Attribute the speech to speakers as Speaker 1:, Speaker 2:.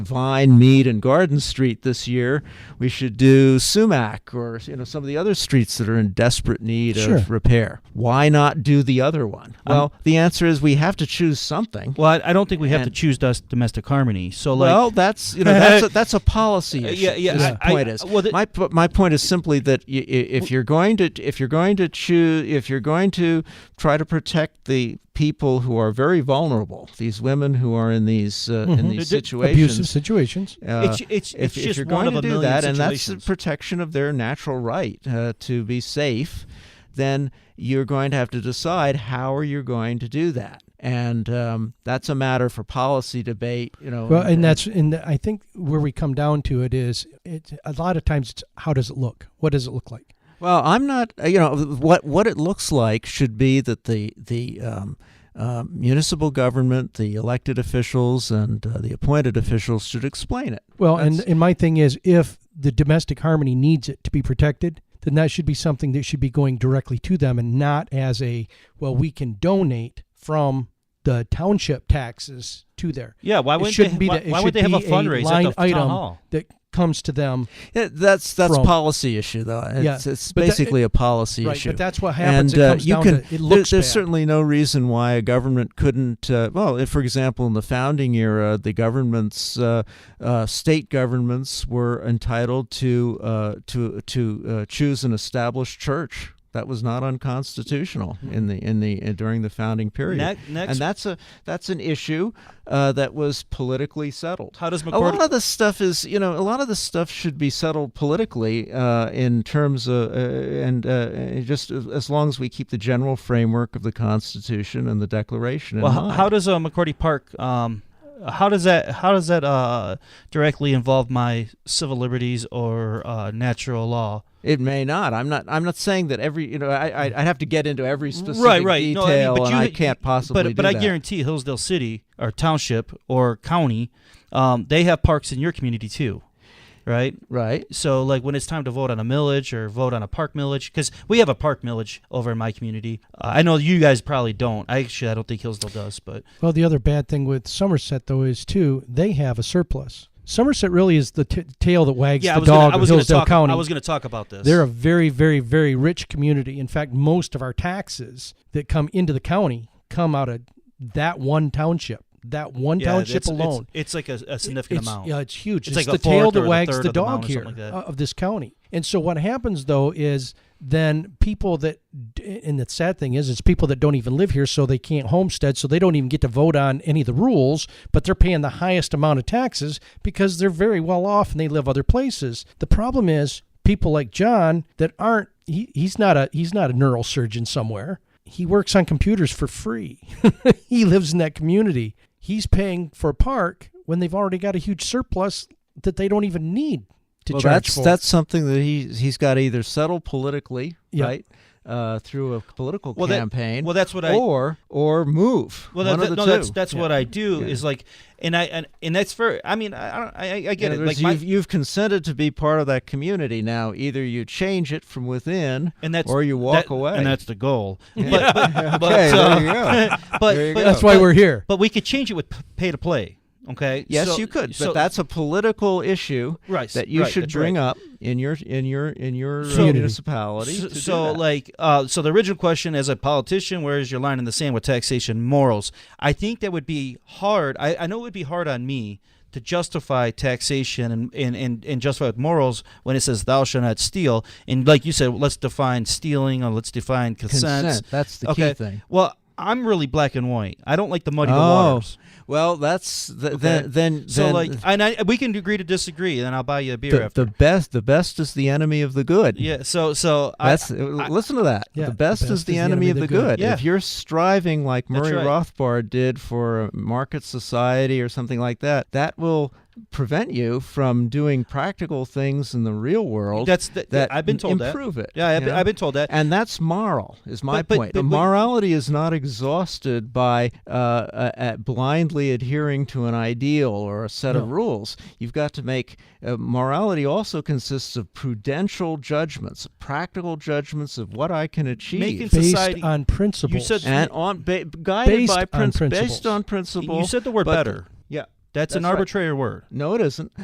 Speaker 1: Vine, Mead, and Garden Street this year. We should do Sumac or you know some of the other streets that are in desperate need
Speaker 2: Sure.
Speaker 1: of repair. Why not do the other one? Well, the answer is we have to choose something.
Speaker 2: Well, I, I don't think we have to
Speaker 1: And-
Speaker 2: choose dust domestic harmony. So like,
Speaker 1: well, that's you know that's a, that's a policy issue.
Speaker 2: yeah, yeah,
Speaker 1: is
Speaker 2: I-
Speaker 1: the
Speaker 2: I-
Speaker 1: point is
Speaker 2: well, the-
Speaker 1: my po- my point is simply that y- y- if you're going to if you're going to choose if you're going to try to protect the people who are very vulnerable, these women who are in these uh, in these
Speaker 2: D- d-
Speaker 1: situations,
Speaker 3: Abusive situations.
Speaker 1: uh,
Speaker 2: It's- it's-
Speaker 1: if,
Speaker 2: it's
Speaker 1: if
Speaker 2: just
Speaker 1: you're
Speaker 2: one
Speaker 1: going
Speaker 2: of
Speaker 1: to
Speaker 2: a
Speaker 1: do
Speaker 2: million
Speaker 1: that, and that's the
Speaker 2: situations.
Speaker 1: protection of their natural right uh, to be safe, then you're going to have to decide how are you going to do that, and um, that's a matter for policy debate. You know,
Speaker 3: Well, and that's and I think where we come down to it is it a lot of times it's how does it look? What does it look like?
Speaker 1: uh, Well, I'm not. You know, what what it looks like should be that the the um, uh, municipal government, the elected officials, and uh, the appointed officials should explain it.
Speaker 3: Well, and,
Speaker 1: That's-
Speaker 3: and my thing is if the domestic harmony needs it to be protected, then that should be something that should be going directly to them and not as a well, we can donate from the township taxes to there.
Speaker 2: yeah, why
Speaker 3: it
Speaker 2: wouldn't
Speaker 3: shouldn't
Speaker 2: they,
Speaker 3: be
Speaker 2: why,
Speaker 3: that. It
Speaker 2: why
Speaker 3: should
Speaker 2: would they have
Speaker 3: be
Speaker 2: a fundraiser
Speaker 3: line
Speaker 2: at the
Speaker 3: item
Speaker 2: town hall?
Speaker 3: that comes to them.
Speaker 1: Yeah, that's that's
Speaker 3: From-
Speaker 1: policy issue though. It's,
Speaker 3: Yeah,
Speaker 1: it's
Speaker 3: but that-
Speaker 1: basically a policy
Speaker 3: Right,
Speaker 1: issue.
Speaker 3: but that's what happens.
Speaker 1: And
Speaker 3: it
Speaker 1: uh,
Speaker 3: comes
Speaker 1: you
Speaker 3: down
Speaker 1: can.
Speaker 3: to it
Speaker 1: there-
Speaker 3: looks
Speaker 1: there's
Speaker 3: bad.
Speaker 1: certainly no reason why a government couldn't. Uh, well, if, for example, in the founding era, the governments, uh, uh, state governments, were entitled to uh, to to uh, choose an established church. That was not unconstitutional
Speaker 3: Hmm.
Speaker 1: in the in the uh, during the founding period.
Speaker 2: Next- next-
Speaker 1: and that's a that's an issue uh, that was politically settled.
Speaker 2: How does
Speaker 1: A
Speaker 2: McCord?
Speaker 1: lot of this stuff is, you know, a lot of this stuff should be settled politically uh, in terms of, uh, and uh, just as as long as we keep the general framework of the Constitution and the Declaration. in
Speaker 2: well, h-
Speaker 1: mind.
Speaker 2: how does uh, McCordy Park? Um, how does that? How does that uh, directly involve my civil liberties or uh, natural law?
Speaker 1: it may not. I'm not. I'm not saying that every. You know, I, I I'd have to get into every specific
Speaker 2: right, right.
Speaker 1: detail,
Speaker 2: no, I mean, but
Speaker 1: and
Speaker 2: you,
Speaker 1: I can't possibly.
Speaker 2: But
Speaker 1: do
Speaker 2: but I
Speaker 1: that.
Speaker 2: guarantee Hillsdale City or township or county, um, they have parks in your community too, right?
Speaker 1: Right.
Speaker 2: So like when it's time to vote on a millage or vote on a park millage, because we have a park millage over in my community. Uh, I know you guys probably don't. I actually I don't think Hillsdale does, but
Speaker 3: Well, the other bad thing with Somerset though is too they have a surplus. Somerset really is the t- tail that wags
Speaker 2: yeah, I
Speaker 3: the
Speaker 2: was gonna,
Speaker 3: dog
Speaker 2: I
Speaker 3: of
Speaker 2: was gonna
Speaker 3: Hillsdale
Speaker 2: talk.
Speaker 3: County.
Speaker 2: I was going to talk about this.
Speaker 3: They're a very, very, very rich community. In fact, most of our taxes that come into the county come out of that one township, that one
Speaker 2: yeah,
Speaker 3: township
Speaker 2: it's, it's-
Speaker 3: alone.
Speaker 2: It's, like a, a significant
Speaker 3: it's,
Speaker 2: amount.
Speaker 3: Yeah, it's huge.
Speaker 2: It's
Speaker 3: It's,
Speaker 2: like a
Speaker 3: the tail
Speaker 2: fourth or
Speaker 3: that
Speaker 2: a
Speaker 3: wags
Speaker 2: third
Speaker 3: the
Speaker 2: of the amount
Speaker 3: dog
Speaker 2: or
Speaker 3: here
Speaker 2: something like
Speaker 3: uh,
Speaker 2: that.
Speaker 3: of this county. And so what happens though is then people that d- and the sad thing is it's people that don't even live here so they can't homestead so they don't even get to vote on any of the rules but they're paying the highest amount of taxes because they're very well off and they live other places the problem is people like john that aren't he, he's not a he's not a neurosurgeon somewhere he works on computers for free. he lives in that community. He's paying for a park when they've already got a huge surplus that they don't even need to
Speaker 1: Well,
Speaker 3: charge
Speaker 1: that's
Speaker 3: for.
Speaker 1: that's something that he he's got to either settle politically,
Speaker 3: Yeah.
Speaker 1: right, uh, through a political
Speaker 2: Well, that-
Speaker 1: campaign,
Speaker 2: well, that's what I.
Speaker 1: or or move.
Speaker 2: Well,
Speaker 1: oh, one
Speaker 2: that,
Speaker 1: of the
Speaker 2: no,
Speaker 1: two.
Speaker 2: that's that's what I do
Speaker 1: Yeah.
Speaker 2: is like, and I and, and that's for. I mean, I I don't- I, I get
Speaker 1: In
Speaker 2: it.
Speaker 1: other
Speaker 2: Like
Speaker 1: words,
Speaker 2: my,
Speaker 1: you've, you've consented to be part of that community now. Either you change it from within,
Speaker 2: and that's
Speaker 1: or you walk
Speaker 2: that-
Speaker 1: away.
Speaker 2: and that's the goal.
Speaker 1: Yeah.
Speaker 2: But, but, but,
Speaker 1: Okay, there
Speaker 2: uh,
Speaker 1: you go.
Speaker 2: but,
Speaker 1: There you
Speaker 2: but
Speaker 1: go.
Speaker 3: that's why we're here.
Speaker 2: But we could change it with p- pay to play. Okay.
Speaker 1: yes,
Speaker 2: So-
Speaker 1: you could,
Speaker 2: so-
Speaker 1: but that's a political issue
Speaker 2: right
Speaker 1: that you
Speaker 2: right,
Speaker 1: should
Speaker 2: that's
Speaker 1: bring
Speaker 2: right.
Speaker 1: up in your in your in your uh,
Speaker 3: Community.
Speaker 1: municipality.
Speaker 2: So,
Speaker 1: to do
Speaker 2: so
Speaker 1: that.
Speaker 2: like, uh, so the original question as a politician, where is your line in the sand with taxation morals? I think that would be hard. I, I know it would be hard on me to justify taxation and, and, and, and justify with morals when it says thou shalt not steal. And like you said, let's define stealing or let's define consent.
Speaker 1: consent. That's the
Speaker 2: okay.
Speaker 1: key thing.
Speaker 2: Well, I'm really black and white. I don't like to muddy the
Speaker 1: Oh.
Speaker 2: waters.
Speaker 1: Well, that's th-
Speaker 2: Okay.
Speaker 1: then then
Speaker 2: So
Speaker 1: then
Speaker 2: like, and I, we can agree to disagree, and I'll buy you a beer
Speaker 1: the,
Speaker 2: after.
Speaker 1: the best the best is the enemy of the good.
Speaker 2: yeah. So so I-
Speaker 1: That's uh, listen to that.
Speaker 3: Yeah,
Speaker 1: the best is the enemy, of the good.
Speaker 2: Yeah.
Speaker 1: If you're striving like
Speaker 2: That's
Speaker 1: Murray
Speaker 2: right.
Speaker 1: Rothbard did for a market society or something like that, that will prevent you from doing practical things in the real world.
Speaker 2: That's the,
Speaker 1: that
Speaker 2: I've been told that.
Speaker 1: improve it.
Speaker 2: Yeah, I've,
Speaker 1: you
Speaker 2: been,
Speaker 1: know?
Speaker 2: I've been told that.
Speaker 1: and that's moral is my
Speaker 2: But- but-
Speaker 1: point.
Speaker 2: but-
Speaker 1: The
Speaker 2: but-
Speaker 1: morality is not exhausted by uh, uh, at blindly adhering to an ideal or a set of rules. You've got to make uh, morality also consists of prudential judgments, practical judgments of what I can achieve.
Speaker 2: Making-
Speaker 3: Based
Speaker 2: society-
Speaker 3: on principles.
Speaker 2: said-
Speaker 1: and on ba- guided
Speaker 3: Based
Speaker 1: by
Speaker 3: on
Speaker 1: principle,
Speaker 3: principles.
Speaker 1: based on principle.
Speaker 2: You said the word
Speaker 1: but-
Speaker 2: better.
Speaker 1: Yeah,
Speaker 2: That's, an
Speaker 1: That's right.
Speaker 2: arbitrary word.
Speaker 1: No, it isn't.